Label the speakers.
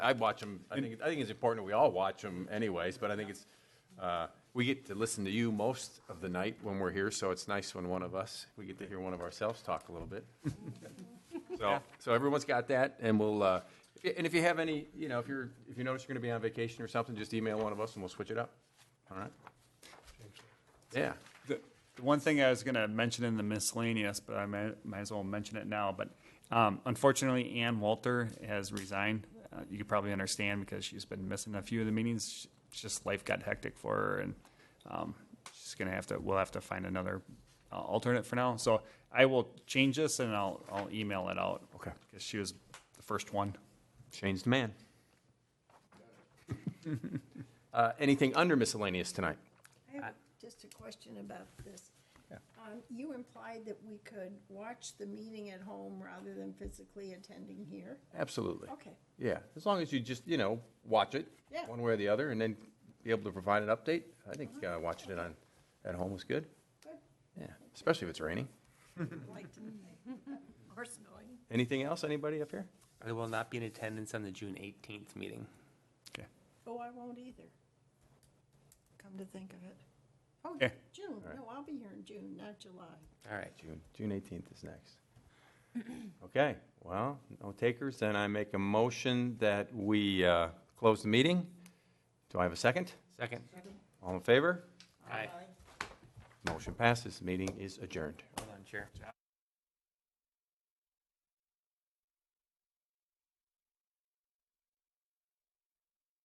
Speaker 1: I watch them, I think, I think it's important, that we all watch them anyways, but I think it's, uh, we get to listen to you most of the night when we're here, so it's nice when one of us, we get to hear one of ourselves talk a little bit. So, so everyone's got that, and we'll, uh, and if you have any, you know, if you're, if you notice you're gonna be on vacation or something, just email one of us and we'll switch it up, all right? Yeah,
Speaker 2: The the one thing I was going to mention in the miscellaneous, but I might, might as well mention it now. But um, unfortunately, Ann Walter has resigned. Uh, you could probably understand because she's been missing a few of the meetings. Sh- It's just life got hectic for her, and um, she's going to have to. We'll have to find another uh, alternate for now. So I will change this, and I'll I'll email it out.
Speaker 1: Okay.
Speaker 2: Because she was the first one.
Speaker 1: changed man. Uh, anything under miscellaneous tonight?
Speaker 3: I have just a question about this. Um, You implied that we could watch the meeting at home rather than physically attending here.
Speaker 1: Absolutely.
Speaker 3: Okay.
Speaker 1: Yeah, as long as you just, you know, watch it,
Speaker 3: Yeah.
Speaker 1: one way or the other, and then be able to provide an update. I think uh, watching it on, at home was good.
Speaker 3: Good.
Speaker 1: Yeah, especially if it's raining.
Speaker 3: Like to Of course, knowing.
Speaker 1: Anything else, anybody up here?
Speaker 4: I will not be in attendance on the June 18th meeting.
Speaker 2: Okay.
Speaker 3: Oh, I won't either. Come to think of it. Oh,
Speaker 2: Okay.
Speaker 3: June. No, I'll be here in June, not July.
Speaker 4: All right.
Speaker 1: June, June 18th is next. Okay, well, no takers, then I make a motion that we uh, close the meeting. Do I have a second?
Speaker 4: Second.
Speaker 1: All in favor?
Speaker 4: Aye.
Speaker 1: Motion passes, meeting is adjourned.
Speaker 4: Hold on, Chair.